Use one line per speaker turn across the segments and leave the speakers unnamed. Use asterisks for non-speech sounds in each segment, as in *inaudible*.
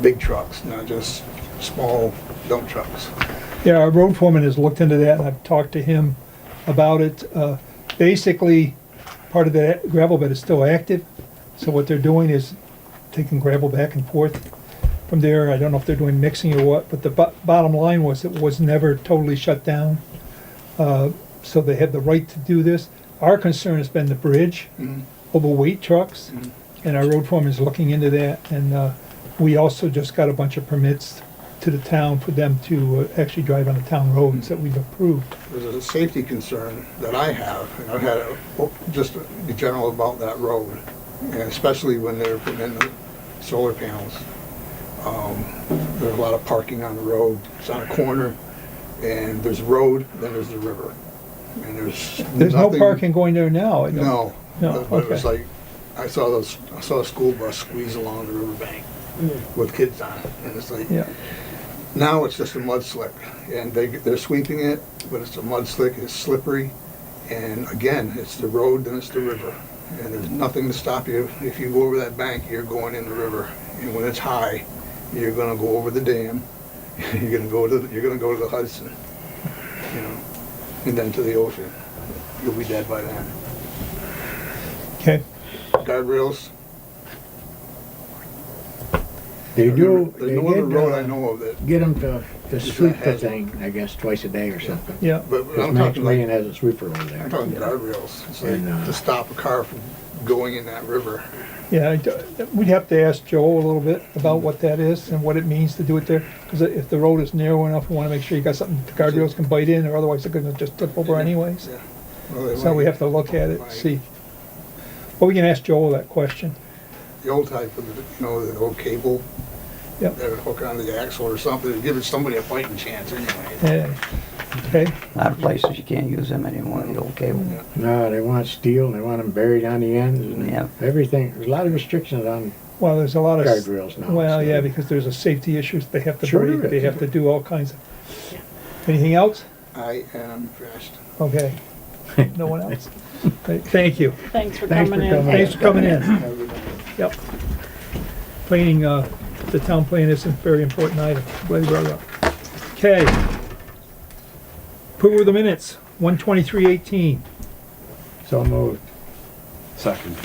big trucks, not just small dump trucks.
Yeah, our road foreman has looked into that, and I've talked to him about it. Uh, Basically, part of that gravel bed is still active, so what they're doing is taking gravel back and forth from there. I don't know if they're doing mixing or what, but the bo- bottom line was it was never totally shut down. Uh, So they had the right to do this. Our concern has been the bridge,
Mm-hmm.
overweight trucks, and our road foreman is looking into that. And uh, we also just got a bunch of permits to the town for them to uh, actually drive on the town roads that we've approved.
There's a safety concern that I have, and I've had it, oh, just in general about that road, and especially when they're putting in the solar panels. Um, There's a lot of parking on the road, it's on a corner, and there's road, then there's the river, and there's
There's no
nothing-
parking going there now. I don't-
No.
No,
But it was
okay.
like, I saw those, I saw a school bus squeeze along the riverbank with kids on it, and it's like,
Yeah,
now it's just a mud slick, and they, they're sweeping it, but it's a mud slick, it's slippery, and again, it's the road, then it's the river, and there's nothing to stop you. If you go over that bank, you're going in the river, and when it's high, you're gonna go over the dam, *laughs* you're gonna go to, the- you're gonna go to the Hudson, you know, and then to the ocean. You'll be dead by then.
okay.
Guardrails,
They do,
There's
they
no other
did,
road I
uh,
know of that,
get them to, to
It's a
sweep the
hazard.
thing, I guess, twice a day or something.
Yeah,
but
Because
I'm
Max
talking
Lane
like,
has a sweeper over
*laughs* I'm
there.
talking guardrails. It's
And,
like
uh,
to stop a car from going in that river.
yeah, I d- we'd have to ask Joe a little bit about what that is and what it means to do it there. Because if the road is narrow enough, we want to make sure you got something the guardrails can bite in, or otherwise they're gonna just tip over anyways.
Yeah. Well, they
So we
like
have to look at it, see. Well, we can ask Joel that question.
The old type of, you know, the old cable
Yep.
that would hook onto the axle or something, it'd give it somebody a fighting chance anyway.
Yeah. Okay,
A lot of places you can't use them anymore, the old cable.
Yeah.
No, they want steel, and they want them buried on the ends,
Yeah.
and everything, there's a lot of restrictions on,
well, there's a lot of.
Guardrails now,
Well,
so-
yeah, because there's a safety issues, they have to
Sure
break,
there
they
is.
have to do all kinds of. Anything else?
I am finished.
Okay. No one
*laughs*
else? Great, Thank you.
Thanks for
Thanks
coming
for
in.
coming.
Thanks for coming in.
Have a good night.
Yep. Planning, uh, the town plan is a very important item. Glad you brought it up. Okay. Approval of the minutes, one twenty-three eighteen.
so moved.
Second.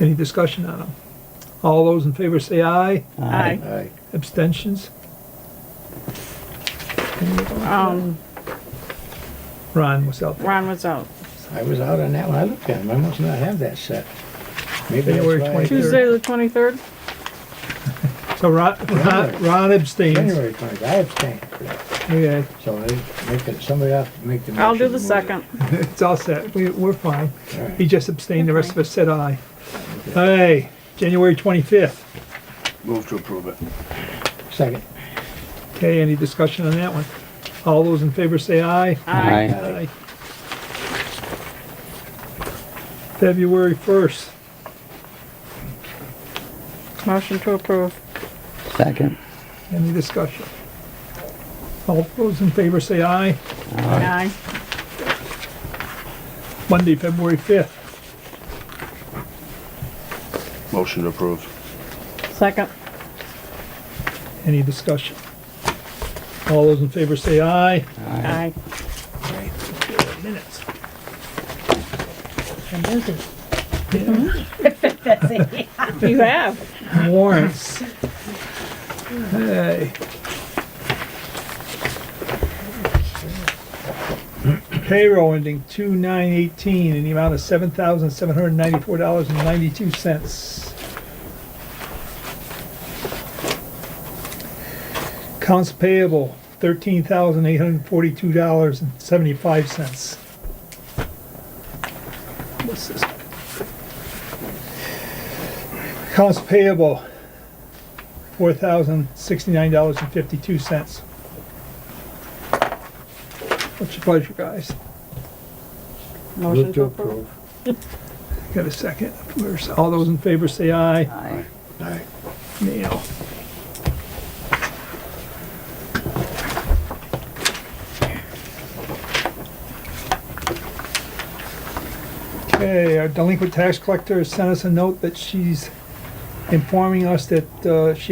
Any discussion on them? All those in favor say aye.
Hi.
Aye.
Abstentions?
Um,
Ron was out there.
Ron was out.
I was out on that one, I looked at them, I must not have that set. Maybe that's
January
why I-
23rd.
Tuesday, the twenty-third?
So Ron, Ron- Ron abstains.
January twenty, I abstained for that,
Okay,
so I make it, somebody else make the.
I'll do
motion
the
to move it.
second.
it's all set. We, we're fine.
All right.
He just abstained, the rest of us said aye. Aye, January twenty-fifth.
Move to approve it.
Second.
Okay, any discussion on that one? All those in favor say aye.
Aye.
Aye. February first,
Motion to approve.
Second.
any discussion? All those in favor say aye.
Aye.
Monday, February fifth,
Motion to approve.
Second.
any discussion? All those in favor say aye.
Aye.
Minutes.
You have.
warrants. Hey. Payroll ending two nine eighteen in the amount of seven thousand seven hundred ninety-four dollars and ninety-two cents. Accounts payable thirteen thousand eight hundred forty-two dollars and seventy-five cents. What's this? Accounts payable, four thousand sixty-nine dollars and fifty-two cents. What's your pleasure, guys?
Motion to approve.
Got a second? Where's- All those in favor say aye.
Aye.
Aye.
Neil. Okay, our delinquent tax collector sent us a note that she's informing us that uh, she